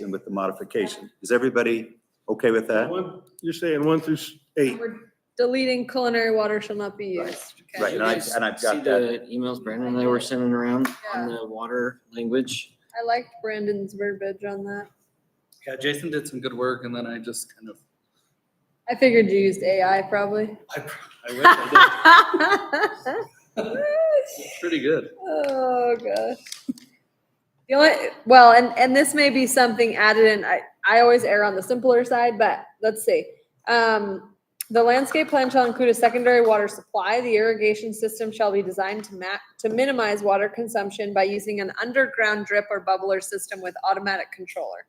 and with the modification. Is everybody okay with that? One, you're saying one through s- eight. We're deleting culinary water shall not be used. Okay. Right, Did and you I- guys and I've got Mm-hmm. see the Emails Brandon and I were sending around on Yeah. the water language. I liked Brandon's verbiage on that. Yeah, Jason did some good work and then I just kind of, I figured you used AI probably. I, I wish I did. Pretty good. Oh, gosh. The only, well, and, and this may be something added in, I, I always err on the simpler side, but let's see. Um, the landscape plan shall include a secondary water supply. The irrigation system shall be designed to ma- to minimize water consumption by using an underground drip or bubbler system with automatic controller.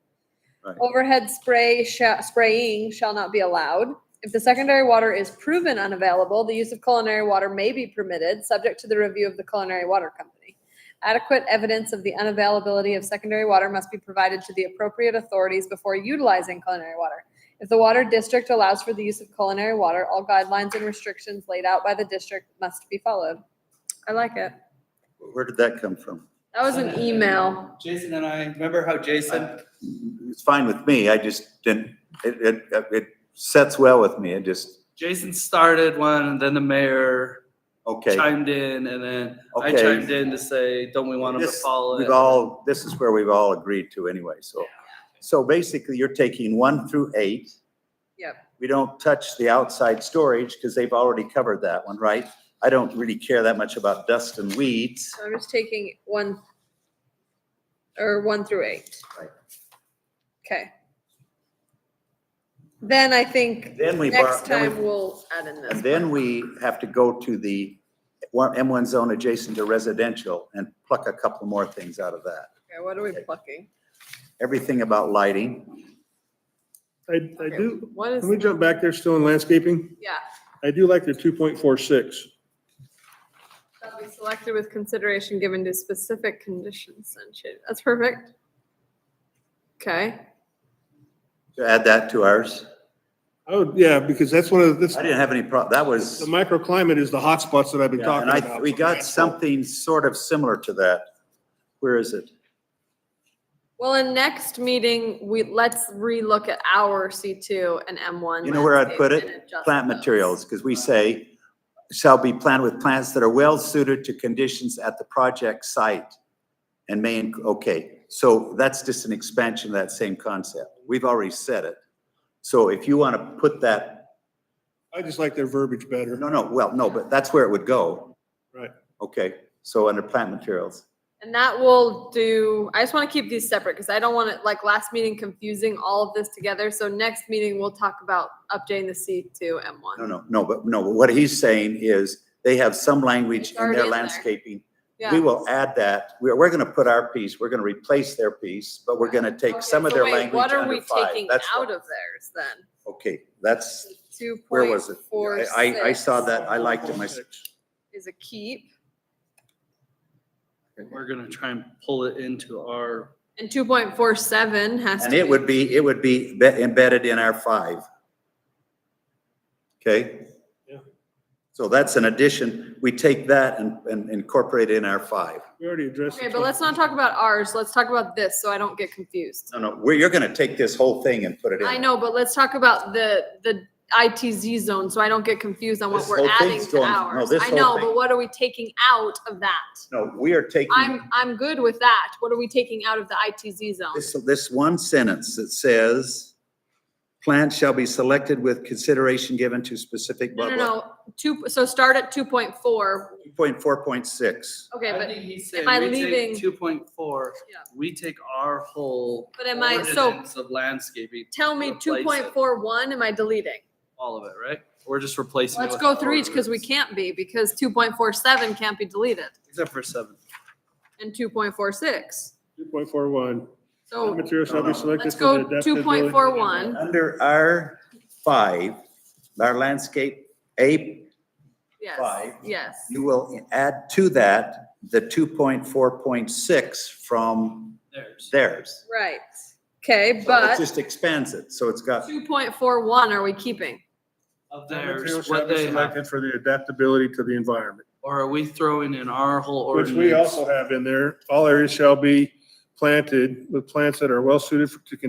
Right. Overhead spray, sha- spraying shall not be allowed. If the secondary water is proven unavailable, the use of culinary water may be permitted, subject to the review of the culinary water company. Adequate evidence of the unavailability of secondary water must be provided to the appropriate authorities before utilizing culinary water. If the water district allows for the use of culinary water, all guidelines and restrictions laid out by the district must be followed. I like it. Where did that come from? That was an email. Jason and I, remember how Jason, It's fine with me, I just didn't, it, it, it sets well with me, it just, Jason started one and then the mayor okay. chimed in and then I Okay. chimed in to say, don't we want him to This- follow We've it? all, this is where we've all agreed to anyway, so. So basically, you're taking one through eight. Yep. We don't touch the outside storage because they've already covered that one, right? I don't really care that much about dust and weeds. So I'm just taking one or one through eight. Right. Okay. Then I think Then we borrow, next then we time we'll add in And this. then we have to go to the one- M1 zone adjacent to residential and pluck a couple more things out of that. Okay, what are we plucking? Everything about lighting, I, I do, What is, can we jump back there still in landscaping? yeah, I do like their two point four six. shall be selected with consideration given to specific conditions and shade. That's perfect. Okay, to add that to ours. Oh, yeah, because that's one of, the- this, I didn't have any prob, that was, the microclimate is the hot spots that I've been talking and I, about. we got something sort of similar to that. Where is it? well, in next meeting, we, let's relook at our C2 and M1. You know where I'd put landscape it? and adjust Plant those. materials, because we say shall be planted with plants that are well suited to conditions at the project site and may, inc- okay, so that's just an expansion of that same concept. We've already said it. So if you want to put that, I just like their verbiage better. no, no, well, no, but that's where it would go. Right. Okay, so under plant materials, And that will do, I just want to keep these separate because I don't want it, like last meeting, confusing all of this together. So next meeting, we'll talk about updating the C2 no, M1. no, no, but no, but what he's saying is they have some language It's in already their in there. landscaping We Yeah. will add that, we're, we're gonna put our piece, we're gonna replace their piece, but we're gonna take Okay, some of so their wait, language What are under we five. taking That's what- out of theirs then? Okay, that's, Two where point was it? four I, six. I- I saw that, I liked it myself. 2.46. Is a keep. We're gonna try and pull it into our, And two point four seven has to. And it be- would be, it would be be- embedded in our five. Okay? Yeah. So that's an addition, we take that and, and incorporate it in our five. We already addressed. Okay, the but let's not talk about ours. Let's talk about this so I don't get confused. No, no, we you're gonna take this whole thing and put it in. I know, but let's talk about the, the ITZ zone, so I don't get confused on what This we're whole adding thing's to going- no, ours. this I whole know, thing. Hmm. but what are we taking out of that? No, we are taking. I'm, I'm good with that. What are we taking out of the ITZ zone? This, this one sentence that says, plants shall be selected with consideration given to specific No, blah, no, blah. no, two, so start at two point four. Point four, point six. Okay, I but, think he said, I we leaving- take two point four, Yeah. we take our whole But am I- so- ordinance of landscaping, tell me Replace two it. point four one, am I deleting? all of it, right? We're just replacing. it Let's with go our through each, because we ordinance. can't be, because two point four seven can't be deleted, Except for seven. and two point four six. Two point four one. So Materials shall No, be no. selected. let's for the Oh. go two point four one, Under our five, our landscape A, yes, Five. yes. you will add to that the two point four, point six from There's. theirs. Right, okay, So It but just expands it, so it's got, two point four one are we keading? Of Materials theirs, shall what be they have, selected for the adaptability to the environment. or are we throwing in our whole Which ordinance? we also have in there, all areas shall be planted with plants that are well suited for- to